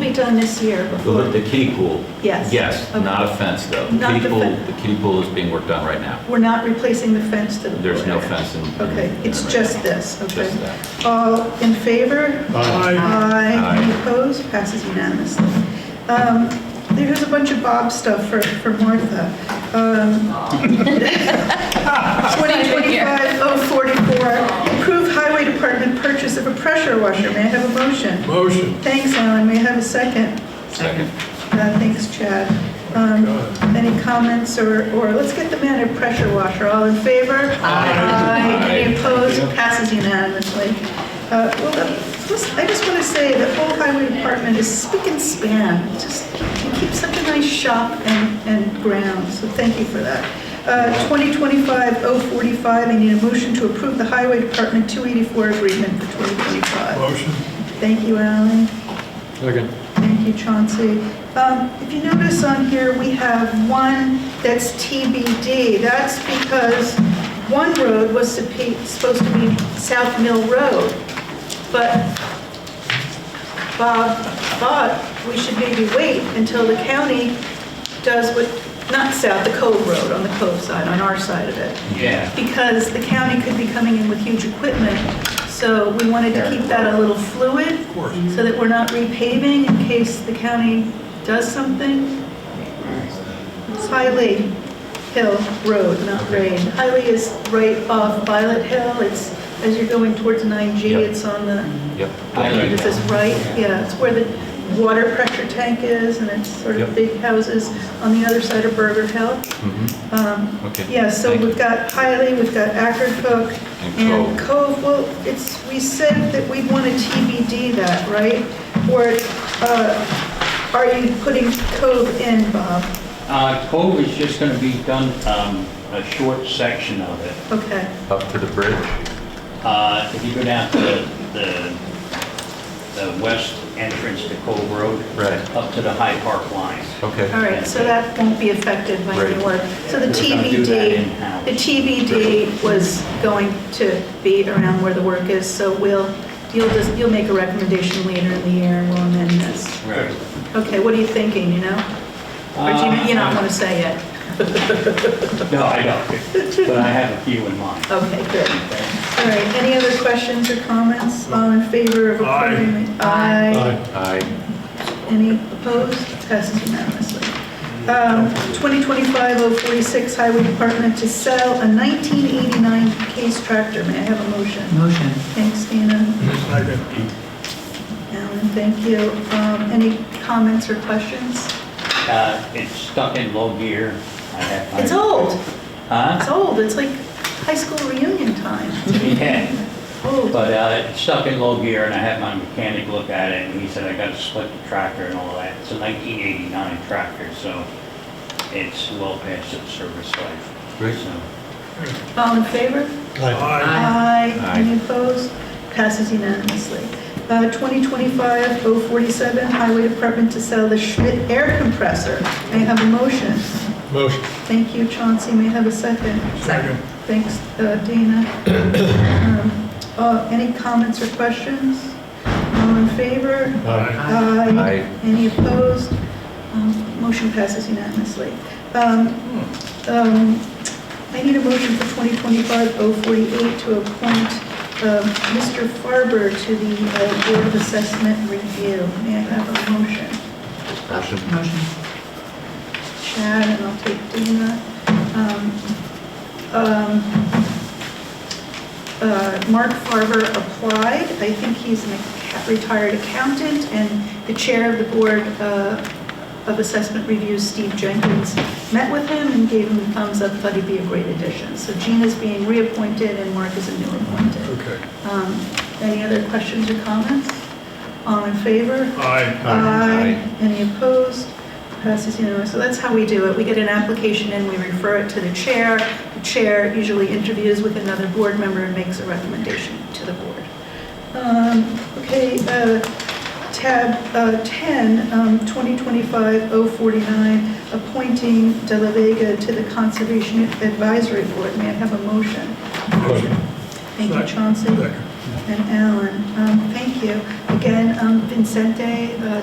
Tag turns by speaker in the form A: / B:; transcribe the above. A: be done this year before.
B: The the kiddie pool?
A: Yes.
B: Yes,
A: Okay.
B: not a fence, though. The
A: Not
B: kiddie
A: the
B: pool,
A: fen-
B: the kiddie pool is being worked on right now.
A: We're not replacing the fence to the...
B: There's no fence in. in-
A: Okay, it's
B: in-
A: just this, okay?
B: Just that.
A: All in favor?
C: Aye.
A: Aye.
B: Aye.
A: Any opposed? Passes unanimously. Um, There's a bunch of Bob stuff for for Martha. Um, 2025-044, approve oh, highway department purchase of a pressure washer. May I have a motion?
C: Motion.
A: Thanks, Alan. May I have a second?
B: Second.
A: Uh, Thanks, Chad. Um, Any comments or, or let's get the man a pressure washer. All in favor? Aye. Any opposed? Passes unanimously. Uh, Well, the- just- I just want to say the whole highway department is spick and span. Just, you keep such a nice shop and, and ground, so thank you for that. Uh, 2025-045, I need a motion to approve the highway department 284 agreement for 2025.
C: Motion.
A: Thank you, Alan.
C: Second.
A: Thank you, Chauncey. Um, If you notice on here, we have one that's TBD. That's because one road was supe- supposed to be South Mill Road, but Bob thought we should maybe wait until the county does what, not South, the Cove Road, on the Cove side, on our side of it
D: Yeah.
A: because the county could be coming in with huge equipment. So we wanted to keep that a little fluid,
C: course.
A: so that we're not repaving in case the county does something. It's Hiley Hill Road, not Rain. Hiley is right off Violet Hill, it's, as you're going towards 9G,
B: Yep.
A: it's on the,
B: Yep.
D: I like
A: it says right, yeah, it's where the water pressure tank is, and it's sort of
B: Yep.
A: big houses on the other side of Burger Hill.
B: Mhm.
A: Um,
B: Okay.
A: yeah, so
B: Thank you.
A: we've got Hiley, we've got Ackercook,
B: And
A: and Cove, well, it's, we said that we want to TBD that, right? Or uh, are you putting Cove in, Bob?
D: Uh, Cove is just gonna be done, um, a short section of it.
A: Okay,
B: Up to the bridge?
D: Uh, if you go down to the, the west entrance to Cove Road.
B: Right.
D: Up to the High Park line.
A: all
B: Okay.
A: right, so that won't be affected by any
B: Right.
A: work. So the
D: We're gonna do that in-house.
A: TBD, the TBD was going to be around where the work is, so we'll, you'll just, you'll make a recommendation later in the year, and we'll amend this.
D: Right.
A: Okay, what are you thinking, you know? Or do you, you not want to say yet?
D: No, I don't, but I have a few in mind.
A: Okay, good. All right, any other questions or comments? All in favor of approving? Aye.
B: Aye.
A: Any opposed? Passes unanimously. Um, 2025-046 Highway Department to sell a 1989 Case tractor. May I have a motion?
E: Motion.
A: Thanks, Dina.
C: Second.
A: Alan, thank you. Um, Any comments or questions?
D: Uh, it's stuck in low gear. I have my-
A: It's old.
D: Huh?
A: It's old. It's like high school reunion time.
D: Yeah.
A: Old.
D: But uh, it's stuck in low gear, and I had my mechanic look at it, and he said I gotta split the tractor and all that. It's a 1989 tractor, so it's well past its service life.
B: Great.
D: So,
A: All in favor?
C: Aye.
A: Aye.
B: Aye.
A: Any opposed? Passes unanimously. Uh, 2025-047, Highway Department to sell the Schmidt air compressor. May I have a motion?
C: Motion.
A: Thank you, Chauncey. May I have a second?
C: Second.
A: Thanks, uh, Dana. Um, uh, Any comments or questions? All in favor?
C: Aye.
A: Aye.
B: Aye.
A: Any opposed? Um, Motion passes unanimously. Um, um, I need a motion for 2025-048 to appoint um, Mr. Farber to the uh, Board of Assessment Review. May I have a motion?
B: Motion.
E: Motion.
A: Chad, and I'll take Dina. Um, um, uh, Mark Farber applied. I think he's an acc- retired accountant, and the chair of the Board uh, of Assessment Review, Steve Jenkins, met with him and gave him the thumbs up, thought he'd be a great addition. So Gina's being reappointed, and Mark is a new appointed.
C: Okay.
A: Um, Any other questions or comments? All in favor?
C: Aye.
A: Aye. Any opposed? Passes unanimously. So that's how we do it. We get an application in, we refer it to the chair. The chair usually interviews with another board member and makes a recommendation to the board. Um, Okay, uh, tab uh, 10, um, 2025-049, appointing De La Vega to the Conservation Advisory Board. May I have a motion?
C: Motion.
A: Thank you, Chauncey
C: Second.
A: and Alan. Um, Thank you. Again, um, Vincente, uh,